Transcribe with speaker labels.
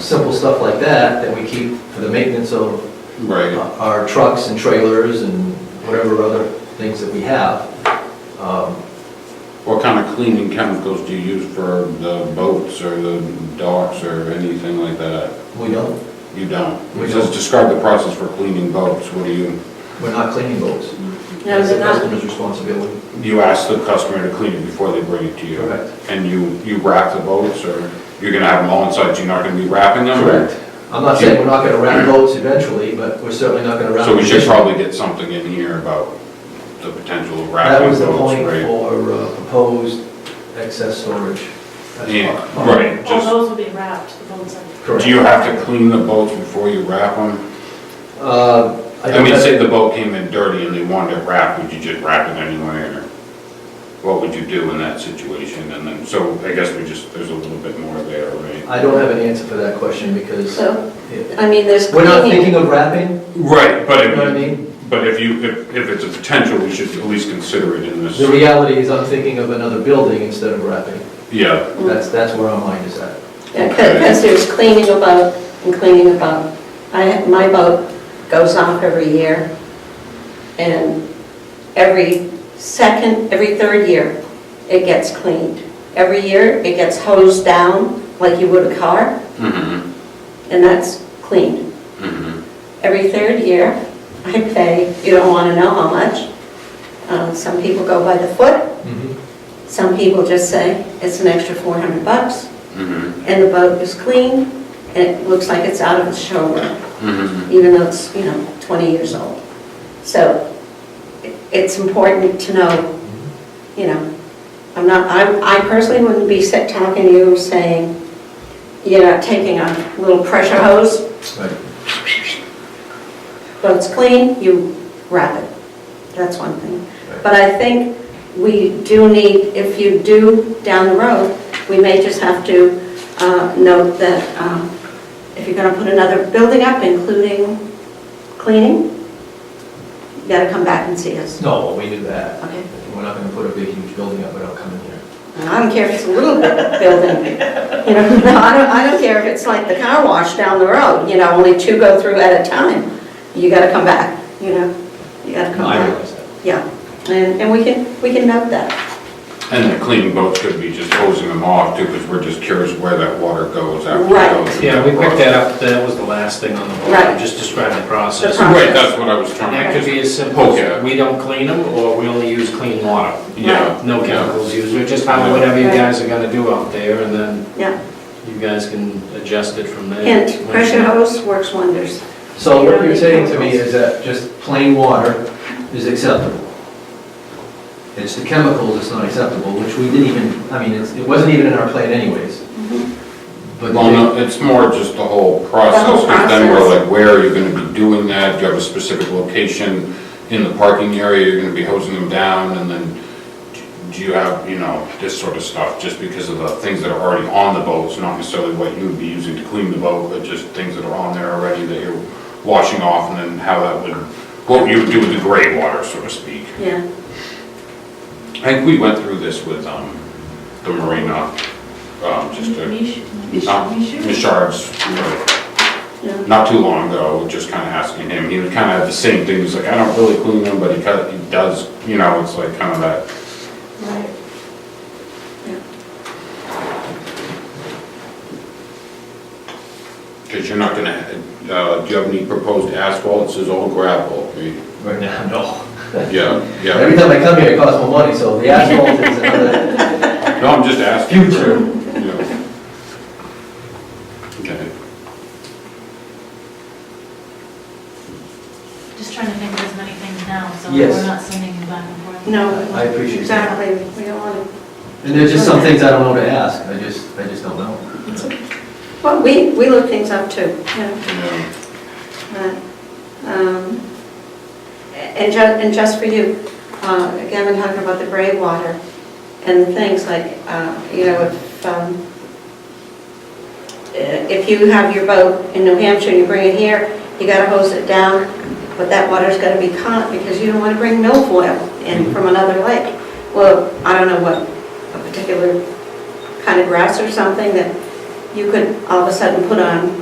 Speaker 1: simple stuff like that, that we keep for the maintenance of
Speaker 2: Right,
Speaker 1: our trucks and trailers and whatever other things that we have. Um,
Speaker 2: what kind of cleaning chemicals do you use for the boats or the docks or anything like that?
Speaker 1: We don't,
Speaker 2: You don't?
Speaker 1: We
Speaker 2: It
Speaker 1: don't.
Speaker 2: says describe the process for cleaning boats, what do you,
Speaker 1: we're not cleaning boats.
Speaker 3: No,
Speaker 1: That's the
Speaker 3: they're
Speaker 1: customer's
Speaker 3: not.
Speaker 1: responsibility.
Speaker 2: you ask the customer to clean it before they bring it to you?
Speaker 1: Correct.
Speaker 2: And you, you wrap the boats, or you're gonna have them all inside, you're not gonna be wrapping them? or-
Speaker 1: I'm not saying we're not gonna wrap boats eventually, but we're certainly not gonna wrap.
Speaker 2: So we should
Speaker 1: them.
Speaker 2: probably get something in here about the potential of
Speaker 1: That
Speaker 2: wrapping
Speaker 1: was
Speaker 2: boats,
Speaker 1: the point
Speaker 2: right?
Speaker 1: for uh, proposed excess storage. That's
Speaker 2: Yeah,
Speaker 1: part-
Speaker 2: right,
Speaker 3: All
Speaker 2: just,
Speaker 3: those will be wrapped, the bones are.
Speaker 1: Correct.
Speaker 2: do you have to clean the boats before you wrap them?
Speaker 1: Uh, I
Speaker 2: I
Speaker 1: don't
Speaker 2: mean, say
Speaker 1: have,
Speaker 2: the boat came in dirty and they wanted it wrapped, would you just wrap it anyway, or what would you do in that situation? And then, so I guess we just, there's a little bit more there, right?
Speaker 1: I don't have an answer for that question because
Speaker 4: So,
Speaker 1: yeah.
Speaker 4: I mean, there's
Speaker 1: we're not
Speaker 4: cleaning.
Speaker 1: thinking of wrapping,
Speaker 2: Right, but
Speaker 1: you know what I
Speaker 2: if,
Speaker 1: mean?
Speaker 2: but if you, if, if it's a potential, we should at least consider it in
Speaker 1: The
Speaker 2: this,
Speaker 1: reality is I'm thinking of another building instead of wrapping.
Speaker 2: yeah,
Speaker 1: That's, that's where our mind is at.
Speaker 4: Because there's cleaning a boat and cleaning a boat. I, my boat goes off every year. And every second, every third year, it gets cleaned. Every year, it gets hosed down like you would a car,
Speaker 2: mhm,
Speaker 4: and that's cleaned.
Speaker 2: mhm,
Speaker 4: Every third year, I pay, you don't want to know how much. Uh, Some people go by the foot, some people just say, it's an extra 400 bucks.
Speaker 2: mhm,
Speaker 4: and the boat is clean, and it looks like it's out of the showroom,
Speaker 2: mhm.
Speaker 4: even though it's, you know, 20 years old. So i- it's important to know, you know, I'm not, I I personally wouldn't be sit talking to you saying, you're not taking a little pressure hose,
Speaker 1: Right.
Speaker 4: boat's clean, you wrap it. That's one thing. But I think we do need, if you do down the road, we may just have to uh, note that um, if you're gonna put another building up, including cleaning, you gotta come back and see us.
Speaker 1: No, we knew that.
Speaker 4: Okay.
Speaker 1: We're not gonna put a big huge building up without coming here.
Speaker 4: And I don't care if it's a little bit building, you know, no, I don't, I don't care if it's like the car wash down the road, you know, only two go through at a time. You gotta come back, you know, you gotta come
Speaker 1: I
Speaker 4: back.
Speaker 1: realize that.
Speaker 4: Yeah, and, and we can, we can note that.
Speaker 2: And the cleaning boats could be just hosing them off too, because we're just curious where that water goes after. it
Speaker 4: Right.
Speaker 2: goes through
Speaker 5: Yeah, we picked
Speaker 2: process.
Speaker 5: that up, that was the last thing on the board,
Speaker 4: Right.
Speaker 5: just describe the process.
Speaker 4: The pro-
Speaker 2: Right, that's what I was
Speaker 5: And
Speaker 2: trying to.
Speaker 5: that could be as simple
Speaker 2: Poke at.
Speaker 5: as, we don't clean them, or we only use clean water.
Speaker 2: Yeah.
Speaker 5: No chemicals used, or just how, whatever you guys are gonna do out there, and then
Speaker 4: Yeah,
Speaker 5: you guys can adjust it from there.
Speaker 4: and pressure hose works wonders.
Speaker 1: So what you're saying to me is that just plain water is acceptable. It's the chemicals that's not acceptable, which we didn't even, I mean, it's- it wasn't even in our plan anyways. But
Speaker 2: Well, no, it's more just the whole process, because then we're like, where are you gonna be doing that? Do you have a specific location in the parking area you're gonna be hosing them down? And then do you have, you know, this sort of stuff, just because of the things that are already on the boats, not necessarily what you would be using to clean the boat, but just things that are on there already that you're washing off, and then how that would, what you would do with the gray water, so to speak.
Speaker 4: Yeah,
Speaker 2: I think we went through this with, um, the marina, um, just Ah, to
Speaker 3: Mish-
Speaker 2: not
Speaker 3: Mish- Mish-
Speaker 2: Mishard's, you know,
Speaker 4: yeah,
Speaker 2: not too long ago, just kind of asking him, he was kind of the same thing, he's like, I don't really clean them, but he kind of, he does, you know, it's like kind of that.
Speaker 4: right.
Speaker 2: Because you're not gonna, uh, do you have any proposed asphalt, it says all gravel, We-
Speaker 1: Right now, no.
Speaker 2: yeah,
Speaker 1: Every
Speaker 2: yeah,
Speaker 1: time I come here, it costs more money, so the asphalt is another,
Speaker 2: no, I'm just asking. for-
Speaker 1: Future.
Speaker 2: yeah. Okay,
Speaker 3: Just trying to think of as many things now, so
Speaker 1: Yes.
Speaker 3: we're not sending you back and forth.
Speaker 4: No.
Speaker 1: I appreciate that.
Speaker 4: Exactly, we don't want
Speaker 1: and there's just some things I don't know to ask, I just, I just don't know.
Speaker 4: to, well, we, we look things up too, you know.
Speaker 2: yeah.
Speaker 4: but, um, And ju, and just for you, uh, again, we're talking about the gray water and things like, uh, you know, if, um, uh, if you have your boat in New Hampshire, you bring it here, you gotta hose it down, but that water's gotta be caught because you don't wanna bring milfoil in from another lake. Well, I don't know what, a particular kind of grass or something that you could all of a sudden put on